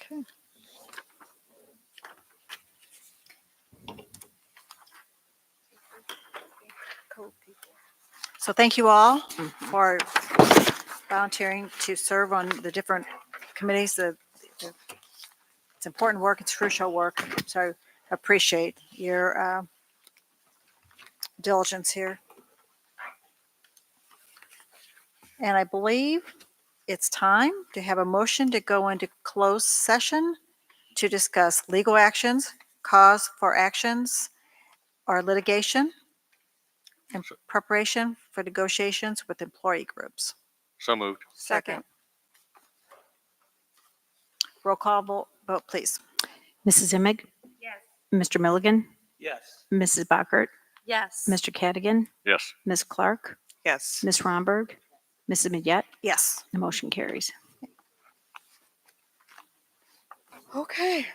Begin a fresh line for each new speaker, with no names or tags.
Okay. So thank you all for volunteering to serve on the different committees. The- the- It's important work, it's crucial work, so appreciate your uh, diligence here. And I believe it's time to have a motion to go into closed session to discuss legal actions, cause for actions, or litigation in preparation for negotiations with employee groups.
So moved.
Second. Roll call vo- vote, please.
Mrs. Imig? Yes. Mr. Milligan?
Yes.
Mrs. Bockert?
Yes.
Mr. Cadigan?
Yes.
Ms. Clark?
Yes.
Ms. Romberg? Mrs. Midget?
Yes.
The motion carries.
Okay.